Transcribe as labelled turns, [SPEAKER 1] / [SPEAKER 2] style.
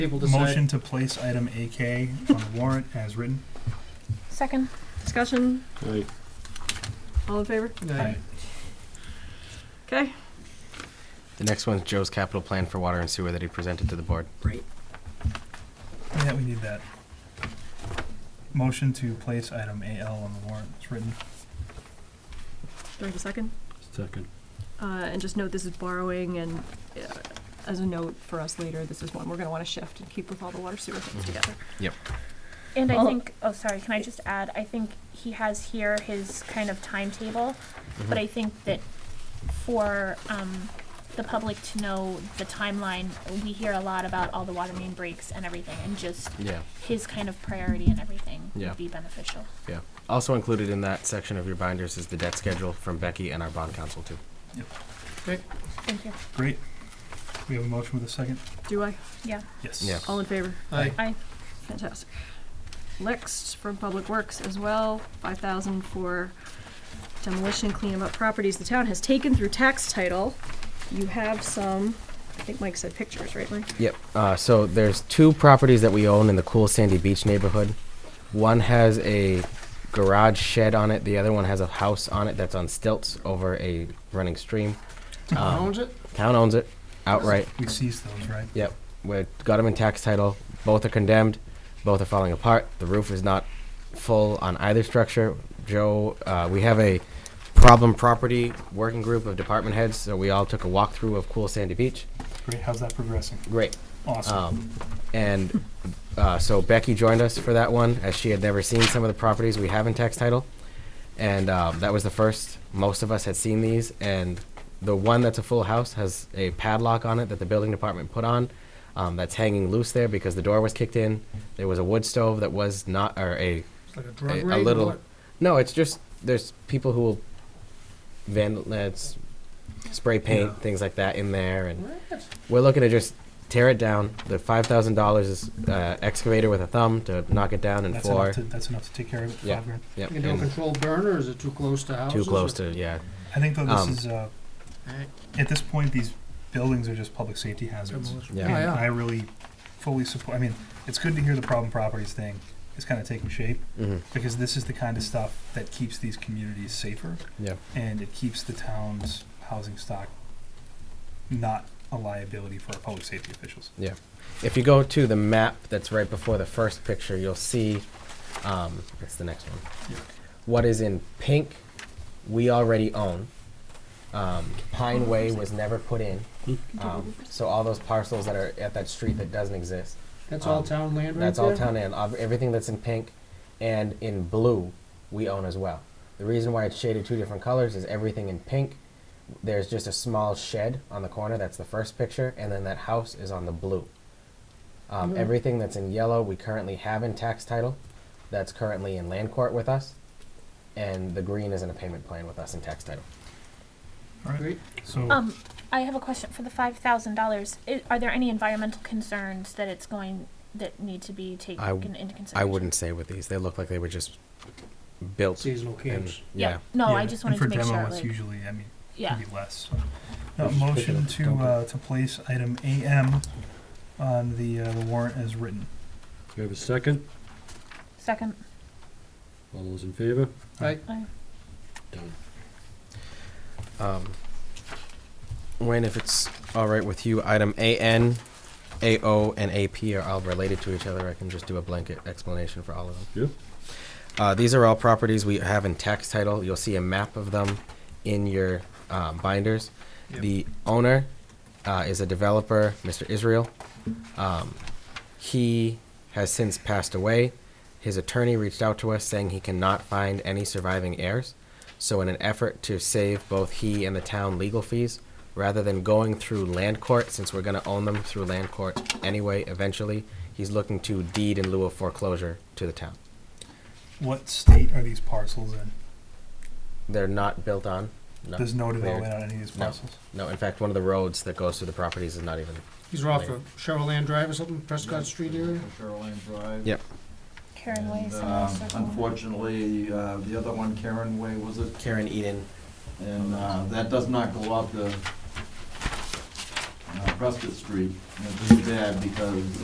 [SPEAKER 1] People
[SPEAKER 2] Motion
[SPEAKER 1] decide.
[SPEAKER 2] to place item AK on the warrant as written.
[SPEAKER 3] Second.
[SPEAKER 4] Discussion?
[SPEAKER 5] Aye.
[SPEAKER 4] All in favor?
[SPEAKER 1] Aye.
[SPEAKER 4] Okay.
[SPEAKER 6] The next one's Joe's capital plan for water and sewer that he presented to the board.
[SPEAKER 2] Yeah, we need that. Motion to place item AL on the warrant as written.
[SPEAKER 4] Do I have a second?
[SPEAKER 5] Second.
[SPEAKER 4] Uh, and just note this is borrowing and uh, as a note for us later, this is one we're gonna wanna shift and keep with all the water sewer things
[SPEAKER 6] Mhm.
[SPEAKER 4] together.
[SPEAKER 3] And I
[SPEAKER 4] Well-
[SPEAKER 3] think, oh, sorry, can I just add, I think he has here his kind of timetable, but I think that for, um, the public to know the timeline, we hear a lot about all the water main breaks and everything, and just
[SPEAKER 6] Yeah.
[SPEAKER 3] his kind of priority and everything
[SPEAKER 6] Yeah.
[SPEAKER 3] would be beneficial.
[SPEAKER 6] Also included in that section of your binders is the debt schedule from Becky and our bond council too.
[SPEAKER 3] Thank you.
[SPEAKER 2] Great. We have a motion with a second?
[SPEAKER 4] Do I?
[SPEAKER 2] Yes.
[SPEAKER 6] Yeah.
[SPEAKER 4] All in favor?
[SPEAKER 1] Aye.
[SPEAKER 4] Fantastic. Next, from Public Works as well, five thousand for demolition cleanup of properties the town has taken through tax title. You have some, I think Mike said pictures, right, Mike?
[SPEAKER 6] Yep. Uh, so there's two properties that we own in the cool Sandy Beach neighborhood. One has a garage shed on it. The other one has a house on it that's on stilts over a running stream.
[SPEAKER 1] Town
[SPEAKER 6] Um,
[SPEAKER 1] owns it?
[SPEAKER 6] Town owns it outright.
[SPEAKER 2] We seized those, right?
[SPEAKER 6] We got them in tax title. Both are condemned. Both are falling apart. The roof is not full on either structure. Joe, uh, we have a problem property working group of department heads, so we all took a walkthrough of cool Sandy Beach.
[SPEAKER 2] Great. How's that progressing?
[SPEAKER 6] Great.
[SPEAKER 2] Awesome.
[SPEAKER 6] Um, and uh, so Becky joined us for that one, as she had never seen some of the properties we have in tax title, and um, that was the first. Most of us had seen these, and the one that's a full house has a padlock on it that the building department put on. Um, that's hanging loose there because the door was kicked in. There was a wood stove that was not, or a
[SPEAKER 1] It's like a drug
[SPEAKER 6] a- a
[SPEAKER 1] raid or
[SPEAKER 6] little-
[SPEAKER 1] what?
[SPEAKER 6] no. It's just there's people who will vandal, that's spray paint
[SPEAKER 2] Yeah.
[SPEAKER 6] things like that in there, and
[SPEAKER 1] What?
[SPEAKER 6] we're looking to just tear it down. The five thousand dollars is uh, excavator with a thumb to knock it down and
[SPEAKER 2] That's
[SPEAKER 6] floor.
[SPEAKER 2] enough to, that's enough to take care of it,
[SPEAKER 6] Yeah.
[SPEAKER 2] five grand.
[SPEAKER 6] Yep.
[SPEAKER 1] You can do a
[SPEAKER 6] and
[SPEAKER 1] controlled burn, or is it too close to houses?
[SPEAKER 6] too close
[SPEAKER 1] or-
[SPEAKER 6] to yeah.
[SPEAKER 2] I think though this
[SPEAKER 6] Um,
[SPEAKER 2] is, uh,
[SPEAKER 1] Alright.
[SPEAKER 2] at this point, these buildings are just public safety hazards.
[SPEAKER 1] Demolition.
[SPEAKER 6] Yeah.
[SPEAKER 2] And
[SPEAKER 1] Oh, yeah.
[SPEAKER 2] I really fully support, I mean, it's good to hear the problem properties thing is kind of taking shape.
[SPEAKER 6] hmm
[SPEAKER 2] because this is the kind of stuff that keeps these communities safer.
[SPEAKER 6] Yeah.
[SPEAKER 2] And it keeps the town's housing stock not a liability for our public safety officials.
[SPEAKER 6] If you go to the map that's right before the first picture, you'll see. Um, that's the next one.
[SPEAKER 2] Yeah.
[SPEAKER 6] What is in pink, we already own. Um, Pine Way was never put in, um, so all those parcels that are at that street that doesn't exist.
[SPEAKER 1] That's all
[SPEAKER 6] Um,
[SPEAKER 1] town land right there?
[SPEAKER 6] That's all town and ob- everything that's in pink and in blue, we own as well. The reason why it's shaded two different colors is everything in pink. There's just a small shed on the corner. That's the first picture, and then that house is on the blue. Um,
[SPEAKER 1] Mhm.
[SPEAKER 6] Everything that's in yellow, we currently have in tax title. That's currently in land court with us, and the green is in a payment plan with us in tax title.
[SPEAKER 1] Great.
[SPEAKER 2] So,
[SPEAKER 3] Um, I have a question for the five thousand dollars. Are there any environmental concerns that it's going, that need to be taken
[SPEAKER 6] I w-
[SPEAKER 3] into consideration?
[SPEAKER 6] I wouldn't say with these. They look like they were just built.
[SPEAKER 1] Seasonal camps.
[SPEAKER 3] Yeah, no, I
[SPEAKER 2] yeah,
[SPEAKER 3] just
[SPEAKER 2] and
[SPEAKER 3] wanted to make
[SPEAKER 2] For
[SPEAKER 3] sure,
[SPEAKER 2] demo, it's
[SPEAKER 3] like,
[SPEAKER 2] usually, I mean,
[SPEAKER 3] yeah.
[SPEAKER 2] could be less. so. Uh,
[SPEAKER 6] Let's just pick it
[SPEAKER 2] motion
[SPEAKER 6] up,
[SPEAKER 2] to,
[SPEAKER 6] dump it.
[SPEAKER 2] uh, to place item AM on the, uh, the warrant as written.
[SPEAKER 5] Do we have a second?
[SPEAKER 3] Second, uh,
[SPEAKER 5] All those in favor?
[SPEAKER 1] Aye.
[SPEAKER 3] Aye.
[SPEAKER 5] Done.
[SPEAKER 6] Um, Wayne, if it's all right with you, item AN, AO, and AP are all related to each other. I can just do a blanket explanation for all of them.
[SPEAKER 5] Yep.
[SPEAKER 6] Uh, these are all properties we have in tax title. You'll see a map of them in your um, binders.
[SPEAKER 2] Yep.
[SPEAKER 6] The owner uh, is a developer, Mr. Israel. Um, he has since passed away. His attorney reached out to us saying he cannot find any surviving heirs. So, in an effort to save both he and the town legal fees, rather than going through land court, since we're going to own them through land court anyway, eventually, he's looking to deed in lieu of foreclosure to the town.
[SPEAKER 2] What state are these parcels in?
[SPEAKER 6] They're not built on. No,
[SPEAKER 2] There's no
[SPEAKER 6] Weird.
[SPEAKER 2] development on any of these
[SPEAKER 6] No.
[SPEAKER 2] parcels?
[SPEAKER 6] no. In fact, one of the roads that goes through the properties is not even.
[SPEAKER 1] These are off of Cheryland Drive or something, Prescott Street area?
[SPEAKER 7] Sherland Drive.
[SPEAKER 6] Yep.
[SPEAKER 3] Karen Way,
[SPEAKER 7] And,
[SPEAKER 3] someone else
[SPEAKER 7] um,
[SPEAKER 3] or someone.
[SPEAKER 7] unfortunately, uh, the other one, Karen Way, was it?
[SPEAKER 6] Karen Eden.
[SPEAKER 7] And, uh, that does not go up the, uh, Prescott Street. And It's just bad because